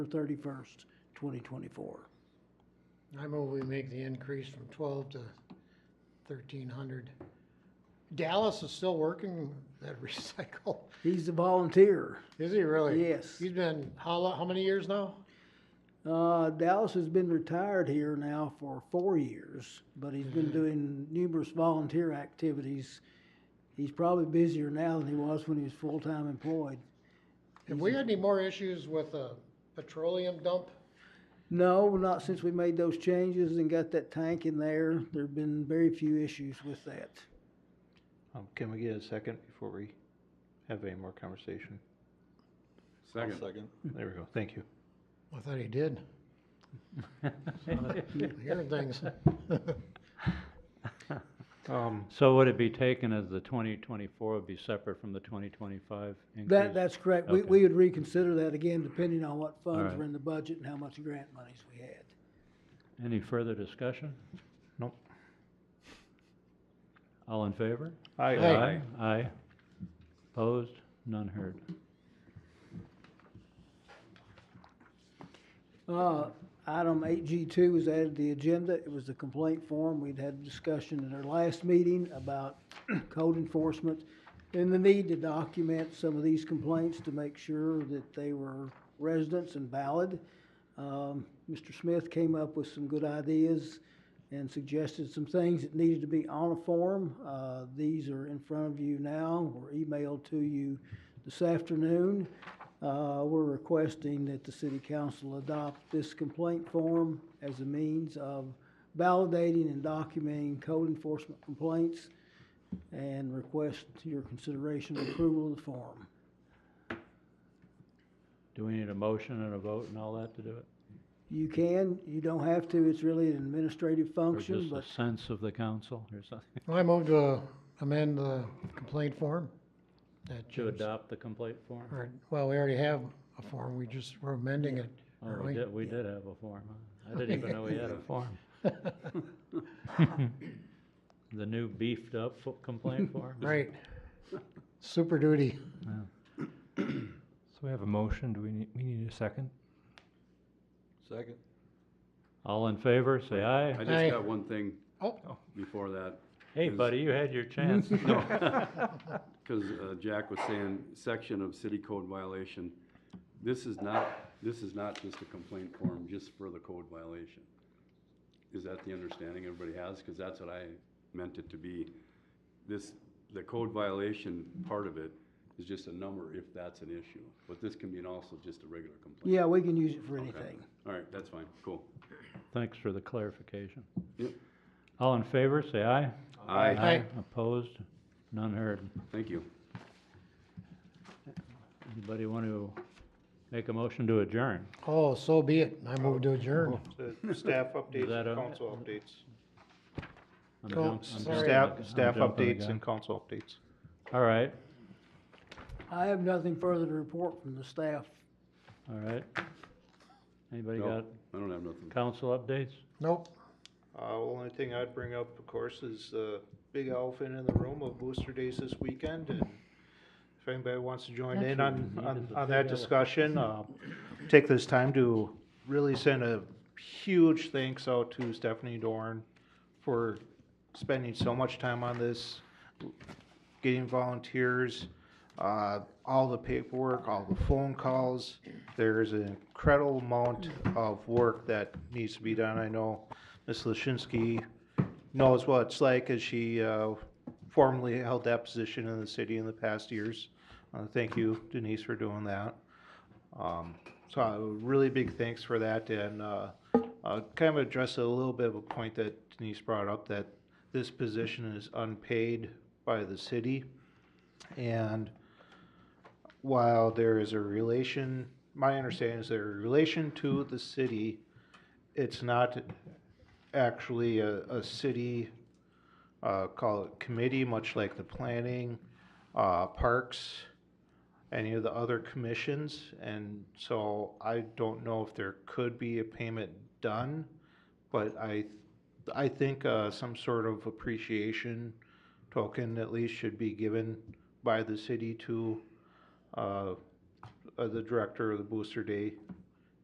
thirty-first, twenty twenty-four. I move we make the increase from twelve to thirteen hundred. Dallas is still working that recycle, He's a volunteer. is he really? Yes. He's been, how lo, how many years now? Uh, Dallas has been retired here now for four years, but he's Mm-hmm. been doing numerous volunteer activities. He's probably busier now than he was when he was full-time employed. Have we had any more issues with a petroleum dump? No, not since we made those changes and got that tank in there. There've been very few issues with that. Um, can we get a second before we have any more conversation? Second. There we go, thank you. I thought he did. Hearing things. Um, So would it be taken as the twenty twenty-four would be separate from the twenty twenty-five increase? That, that's correct. We, Okay. we would reconsider that again, depending on what funds right. were in the budget and how much grant monies we had. Any further discussion? Nope. All in favor? I, uh, Aye. Aye. Opposed? None heard. Uh, Item eight G two was added to the agenda. It was the complaint form. We'd had a discussion at our last meeting about code enforcement and the need to document some of these complaints to make sure that they were residents and valid. Um, Mr. Smith came up with some good ideas and suggested some things that needed to be on a form. Uh, These are in front of you now, were emailed to you this afternoon. Uh, We're requesting that the city council adopt this complaint form as a means of validating and documenting code enforcement complaints and request your consideration and approval of the form. Do we need a motion and a vote and all that to do it? You can, you don't have to, it's really an administrative Or function, just but a sense of the council or something? I move to uh, amend the complaint form. That To James- adopt the complaint form? Or, well, we already have a form, we just, we're amending it, Oh, aren't we we? did, we did have a form, huh? I didn't even know we had a form. The new beefed up fo- complaint form? Right. Super duty. So we have a motion, do we need, we need a second? Second. All in favor, say aye. I Aye. just got one thing Oh, before that, Hey, Is- buddy, you had your chance. because uh, Jack was saying section of city code violation. This is not, this is not just a complaint form, just for the code violation. Is that the understanding everybody has? Because that's what I meant it to be. This, the code violation part of it is just a number if that's an issue. But this can be an also just a regular complaint. yeah, we can use it for Okay. anything. All right, that's fine, cool. Thanks for the clarification. Yep. All in favor, say aye. Aye, Aye. Opposed? None heard. thank you. Anybody want to make a motion to adjourn? oh, so be it, I move to adjourn. Staff updates and that a- council updates. I'm Go- jump- I'm sorry. jumping Staff, the- I'm staff jumping the updates gun. and council updates. All right, I have nothing further to report from the staff. all right. Anybody No, got I don't have nothing. council updates? Nope, Uh, well, only thing I'd bring up, of course, is the big elephant in the room of Booster Days this weekend, and if anybody wants to join in That's on, what we on, need, is a on big that discussion, uh, take this time to really send a huge thanks out to Stephanie Dorn for spending so much time on this, getting volunteers, uh, all the paperwork, all the phone calls. There's an incredible amount of work that needs to be done. I know Ms. Lashinsky knows what it's like as she, uh, formerly held that position in the city in the past years. Uh, thank you Denise for doing that. Um, so a really big thanks for that and, uh, uh, kind of address a little bit of a point that Denise brought up that this position is unpaid by the city. And while there is a relation, my understanding is there a relation to the city, it's not actually a, a city, uh, call it committee, much like the planning, uh, parks, any of the other commissions. And so I don't know if there could be a payment done, but I, I think, uh, some sort of appreciation token at least should be given by the city to, uh, uh, the director of the Booster Day